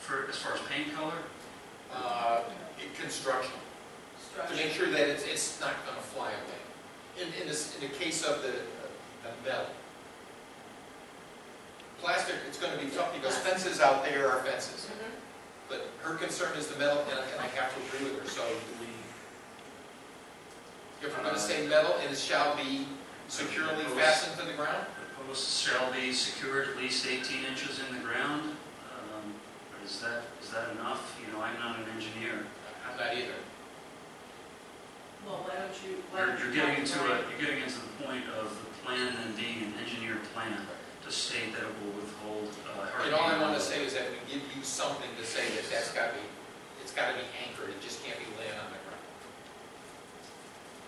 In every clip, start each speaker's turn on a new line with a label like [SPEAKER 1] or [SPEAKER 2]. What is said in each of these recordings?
[SPEAKER 1] for, as far as paint color?
[SPEAKER 2] uh, in construction, to make
[SPEAKER 3] Structure.
[SPEAKER 2] sure that it's, it's not gonna fly away. In, in this, in the case of the, the metal. Plastic, it's gonna be tough because fences out there are fences,
[SPEAKER 3] Mhm.
[SPEAKER 2] but her concern is the metal, and I, and I have to agree with her, so do we? If we're gonna say metal, and it shall be securely fastened to the ground?
[SPEAKER 1] The posts shall be secured at least 18 inches in the ground. Um, Is that, is that enough? You know, I'm not an engineer.
[SPEAKER 2] I'm not either.
[SPEAKER 3] Well, why don't you? why
[SPEAKER 1] You're
[SPEAKER 3] don't you
[SPEAKER 1] you're getting
[SPEAKER 3] have
[SPEAKER 1] into
[SPEAKER 3] it
[SPEAKER 1] a,
[SPEAKER 3] right?
[SPEAKER 1] you're getting into the point of the plan and being an engineer plan to state that it will withhold uh, hurricane.
[SPEAKER 2] And all I wanna
[SPEAKER 1] level.
[SPEAKER 2] say is that we give you something to say that that's gotta be, it's gotta be anchored, it just can't be laying on the ground.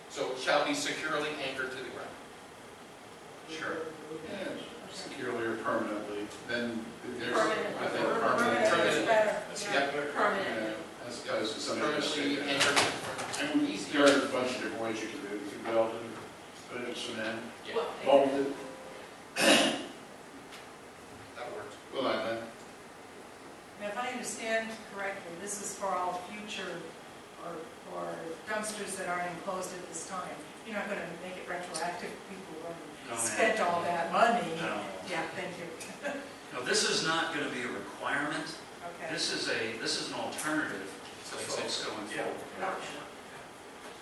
[SPEAKER 2] So it shall be securely anchored to the ground.
[SPEAKER 1] Sure.
[SPEAKER 4] securely or permanently, then there's. uh,
[SPEAKER 3] Permanent.
[SPEAKER 4] I think
[SPEAKER 3] Permanent is
[SPEAKER 4] permanent,
[SPEAKER 3] better.
[SPEAKER 2] Yep.
[SPEAKER 3] Yeah,
[SPEAKER 4] yeah,
[SPEAKER 3] Permanent.
[SPEAKER 4] As opposed to something. that's
[SPEAKER 2] Permanently
[SPEAKER 4] taken out.
[SPEAKER 2] anchored.
[SPEAKER 4] And we- there are a bunch of different ways you can do it, you can build it, put it in cement,
[SPEAKER 2] Yeah,
[SPEAKER 3] Well,
[SPEAKER 4] mold it,
[SPEAKER 2] that works.
[SPEAKER 4] well, I, I-
[SPEAKER 5] Now, if I understand correctly, this is for all future or or dumpsters that aren't enclosed at this time. You're not going to make it retroactive, people
[SPEAKER 1] No,
[SPEAKER 5] who
[SPEAKER 1] ma'am.
[SPEAKER 5] spent all that money.
[SPEAKER 1] No.
[SPEAKER 5] Yeah, thank you.
[SPEAKER 1] No, this is not going to be a requirement.
[SPEAKER 5] Okay.
[SPEAKER 1] This is a, this is an alternative
[SPEAKER 2] So
[SPEAKER 1] to
[SPEAKER 2] it's like-
[SPEAKER 1] folks going
[SPEAKER 6] Yeah.
[SPEAKER 1] forward.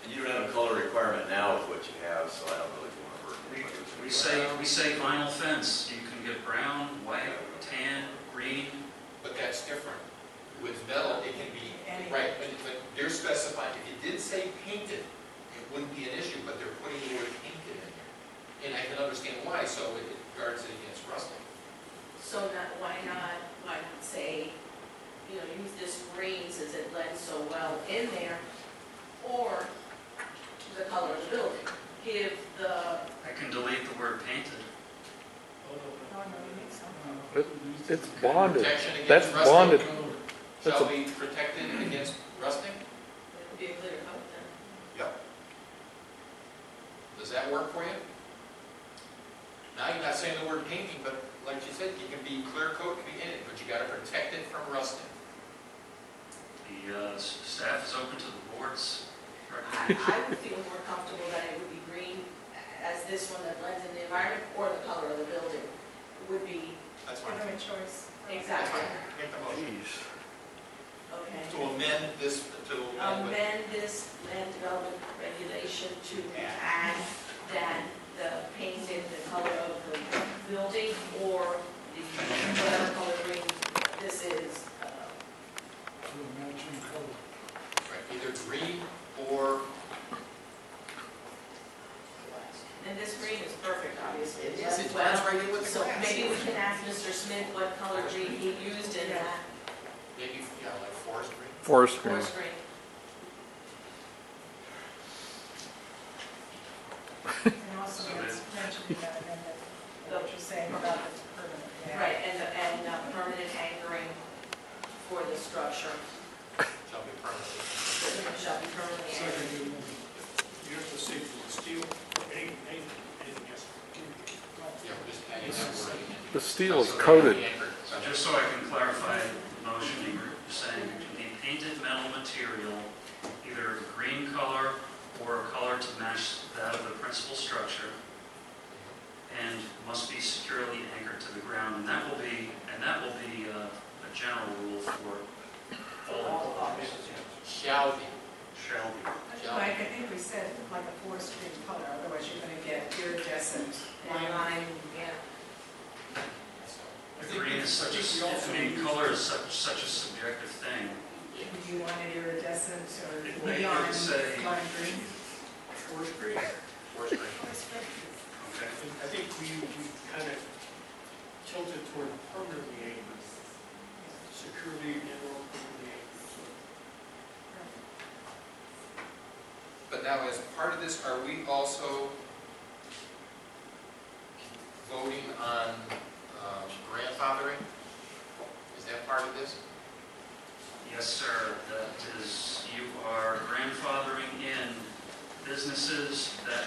[SPEAKER 6] And you don't have a color requirement now with what you have, so I don't really want to work.
[SPEAKER 1] We- We say, we say vinyl fence, you can get brown, white, tan, green,
[SPEAKER 2] But that's different. With metal, it can be,
[SPEAKER 5] Any-
[SPEAKER 2] right, but, but they're specified. If it did say painted, it wouldn't be an issue, but they're putting the word painted in there. And I can understand why, so it guards it against rusting.
[SPEAKER 3] So not, why not, why not say, you know, use this green since it blends so well in there, or the color of the building, give the,
[SPEAKER 1] I can delete the word painted.
[SPEAKER 5] Oh, no, you need some.
[SPEAKER 7] It's bonded.
[SPEAKER 2] Protection against
[SPEAKER 7] That's
[SPEAKER 2] rusting
[SPEAKER 7] bonded. That's
[SPEAKER 2] Shall
[SPEAKER 7] a-
[SPEAKER 2] be protected against rusting?
[SPEAKER 3] it could be a glitter coat then.
[SPEAKER 2] Does that work for you? Now, you're not saying the word painting, but like you said, you can be clear coat, it can be in it, but you gotta protect it from rusting.
[SPEAKER 1] The uh, s- staff is open to the board's recommendation.
[SPEAKER 3] I I would feel more comfortable that it would be green as this one that blends in the environment, or the color of the building would be
[SPEAKER 2] That's
[SPEAKER 1] Uh,
[SPEAKER 5] Give
[SPEAKER 2] fine.
[SPEAKER 5] them a choice.
[SPEAKER 2] That's
[SPEAKER 3] exactly,
[SPEAKER 2] fine. Make the motion.
[SPEAKER 3] okay.
[SPEAKER 2] To amend this, to amend with-
[SPEAKER 3] amend this land development regulation to add that the painted, the color of the building or the whatever color green this is. uh,
[SPEAKER 2] right, either green or,
[SPEAKER 3] And this green is perfect, obviously.
[SPEAKER 2] It is, it
[SPEAKER 3] does well.
[SPEAKER 2] blends right in with the
[SPEAKER 3] So
[SPEAKER 2] grass.
[SPEAKER 3] maybe we can ask Mr. Smith what color green he used in that
[SPEAKER 2] maybe, yeah, like forest green.
[SPEAKER 7] Forest green.
[SPEAKER 3] forest green.
[SPEAKER 5] And also,
[SPEAKER 1] So
[SPEAKER 5] it's mentioned that, and that, what you're saying about the permanent. yeah.
[SPEAKER 3] Right, and, the- and uh, permanent anchoring for the structure,
[SPEAKER 2] Shall be permanently.
[SPEAKER 3] shall be permanently anchored.
[SPEAKER 6] You have to see for steel, anything, anything else.
[SPEAKER 2] Yeah, we're just adding that word again.
[SPEAKER 7] The steel is
[SPEAKER 2] So they're gonna
[SPEAKER 7] coated.
[SPEAKER 2] be anchored.
[SPEAKER 1] So Uh, just so I can clarify the motion, you're saying the painted metal material, either a green color or a color to match that of the principal structure, and must be securely anchored to the ground, and that will be, and that will be uh, a general rule for all enclosures.
[SPEAKER 2] Shall be,
[SPEAKER 1] Shall be.
[SPEAKER 5] Mike, I think we said like a forest green color, otherwise you're going to get iridescent
[SPEAKER 3] And
[SPEAKER 5] lime.
[SPEAKER 3] lime, yeah.
[SPEAKER 2] so. I
[SPEAKER 1] The
[SPEAKER 2] think
[SPEAKER 1] green
[SPEAKER 2] we-
[SPEAKER 1] is
[SPEAKER 2] I
[SPEAKER 1] such
[SPEAKER 2] think we
[SPEAKER 1] a,
[SPEAKER 2] also
[SPEAKER 1] I mean,
[SPEAKER 2] use-
[SPEAKER 1] color is such, such a subjective thing.
[SPEAKER 5] Do you want it iridescent
[SPEAKER 1] It
[SPEAKER 5] or
[SPEAKER 1] may- it
[SPEAKER 5] neon
[SPEAKER 1] would say-
[SPEAKER 5] lime green?
[SPEAKER 6] Forest green.
[SPEAKER 2] Forest green.
[SPEAKER 1] Okay.
[SPEAKER 6] I think we, we kind of tilted toward permanently anchored, security and or permanently anchored. So
[SPEAKER 2] But now, as part of this, are we also voting on um, grandfathering? Is that part of this?
[SPEAKER 1] Yes, sir, that is, you are grandfathering in businesses that